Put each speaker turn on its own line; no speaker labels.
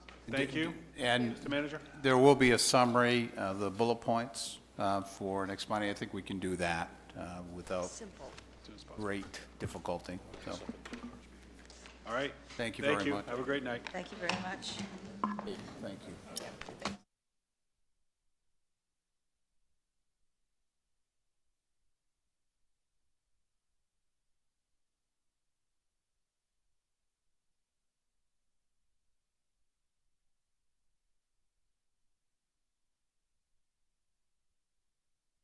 Thank you,
And
Mr. Manager.
there will be a summary of the bullet points uh, for next Monday. I think we can do that uh, without
Simple.
great difficulty. So,
All right.
Thank you very much.
Have a great night.
Thank you very much.
thank you.